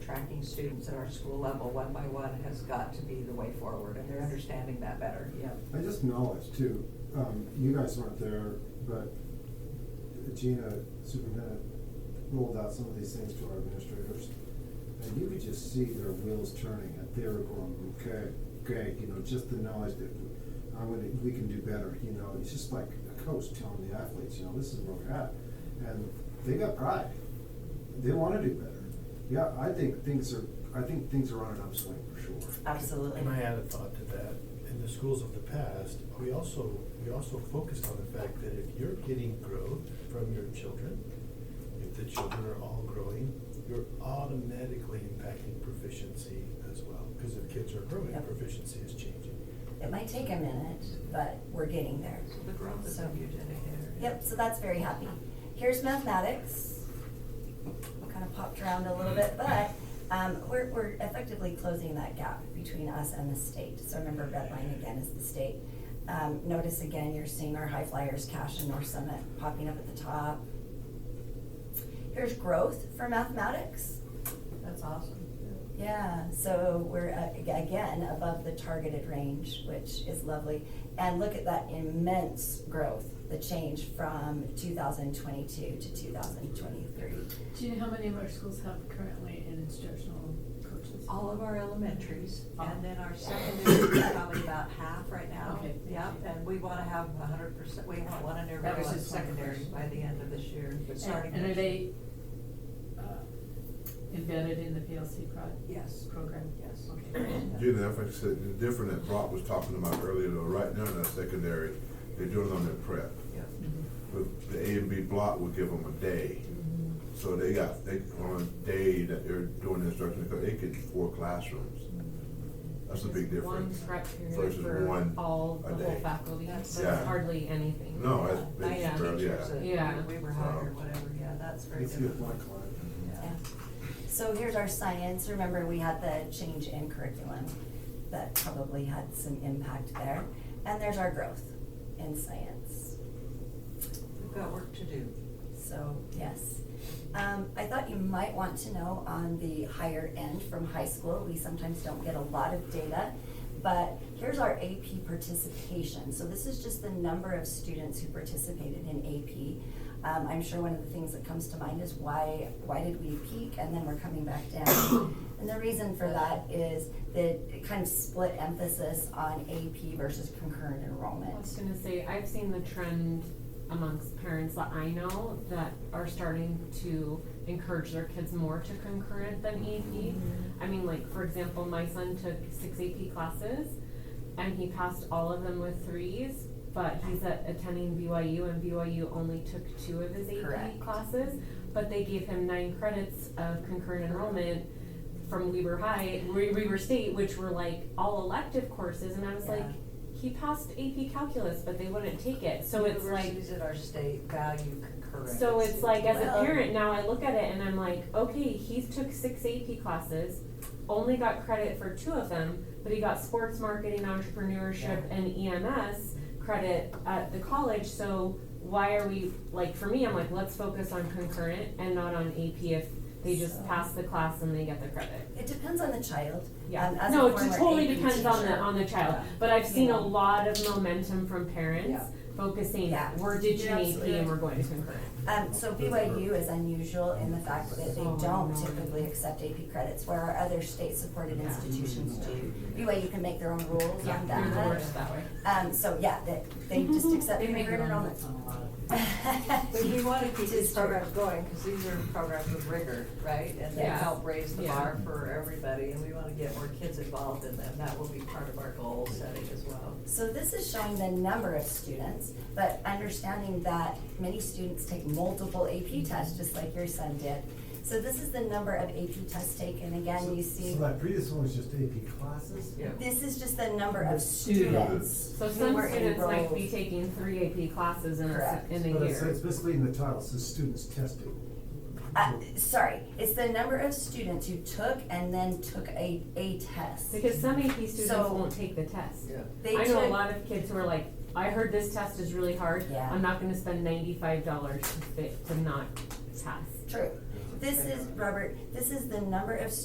tracking students at our school level one by one has got to be the way forward, and they're understanding that better, yep. I just knowledge too, um, you guys weren't there, but Gina Superintendent rolled out some of these things to our administrators. And you could just see their wheels turning and they were going, okay, okay, you know, just the knowledge that I'm gonna, we can do better, you know, it's just like a coach telling the athletes, you know, this is where we're at. And they got pride, they wanna do better. Yeah, I think things are, I think things are on an upswing for sure. Absolutely. And I add a thought to that, in the schools of the past, we also, we also focused on the fact that if you're getting growth from your children, if the children are all growing, you're automatically impacting proficiency as well, because if kids are growing, Yep. proficiency is changing. It might take a minute, but we're getting there. The growth is So- a huge indicator. Yep, so that's very happy. Here's mathematics. Kind of popped around a little bit, but um, we're, we're effectively closing that gap between us and the state. So remember, red line again is the state. Um, Notice again, you're seeing our high flyers, Cash and North Summit popping up at the top. Here's growth for mathematics. That's awesome. Yeah, so we're uh, ag- again above the targeted range, which is lovely. And look at that immense growth, the change from 2022 to 2023. Do you know how many of our schools have currently an instructional coaches? All of our elementaries, and then our secondary is probably about half right now. Okay. Yep, and we wanna have a hundred percent, we want one in every That was elementary just my secondary question. by the end of this year, but starting. And and are next- they uh, embedded in the PLC prod? Yes. Program? Yes. Okay. Gina, if I said, different that Brock was talking about earlier, though, right now in that secondary, they're doing it on their prep. Yep. Mm-hmm. But the A and B block would give them a day. So they got, they, on a day that they're doing instruction, they could four classrooms. That's a big One difference. prep period Versus for one all, a the whole day. faculty, That's- that's Yeah. hardly anything. No, Yeah, that's, I that's, have yeah. teachers that Yeah. We were hired or So- whatever, yeah, that's very Let's get different. one client. Yeah. So here's our science. Remember, we had the change in curriculum that probably had some impact there. And there's our growth in science. We've got work to do. So, yes. Um, I thought you might want to know on the higher end from high school, we sometimes don't get a lot of data. But here's our AP participation. So this is just the number of students who participated in AP. Um, I'm sure one of the things that comes to mind is why, why did we peak and then we're coming back down? And the reason for that is the kind of split emphasis on AP versus concurrent enrollment. I was gonna say, I've seen the trend amongst parents that I know that are starting to encourage their kids more to concurrent than Mm-hmm. AP. I mean, like, for example, my son took six AP classes and he passed all of them with threes, but he's at, attending BYU and BYU only took two of his Correct. AP classes. But they gave him nine credits of concurrent enrollment from Weber High, We- Weber State, which were like all elective courses, and I was like, Yeah. he passed AP calculus, but they wouldn't take it. So it's like, Universities at our state value concurrent. so it's like as a Well- parent now, I look at it and I'm like, okay, he took six AP classes, only got credit for two of them, but he got sports marketing, entrepreneurship, and EMS credit at the college. So why are we like for me? I'm like, let's focus on concurrent and not on AP if they just So- pass the class and they get the credit. It depends on the child. Yeah, Um, as a no, it former totally AP depends on the, teacher. on the child, Yeah. but I've seen Yeah. a lot of momentum from parents Yeah. focusing, Yeah. we're ditching You're AP absolutely and we're going to concurrent. Um, so BYU is unusual in the fact that they Oh, don't no. typically accept AP credits, where our other state-supported Yeah. institutions do. BYU can make their own rules on You're the that. worst that way. Um, so yeah, they, they just accept They make concurrent their own enrollment. rules on a lot But we wanna keep To these start. programs going, cause these are programs with rigor, right? And they Yeah. help raise the Yeah. bar for everybody, and we wanna get more kids involved in them, that will be part of our goal setting as well. So this is showing the number of students, but understanding that many students take multiple AP tests, just like your son did. So this is the number of AP tests taken, again, you see. So that previous one was just AP classes? Yeah. This is just the number of students. So who some were students might be enrolled. taking three AP classes in a, se- Correct. in a year. But it's, it's basically in the title, it says students testing. Uh, sorry, it's the number of students who took and then took a, a test. Because some AP students So- won't take the test. Yeah. They I know a took- lot of kids who are like, I heard this test is really hard, Yeah. I'm not gonna spend ninety-five dollars to fit, to not pass. True. This is, Robert, this is the number of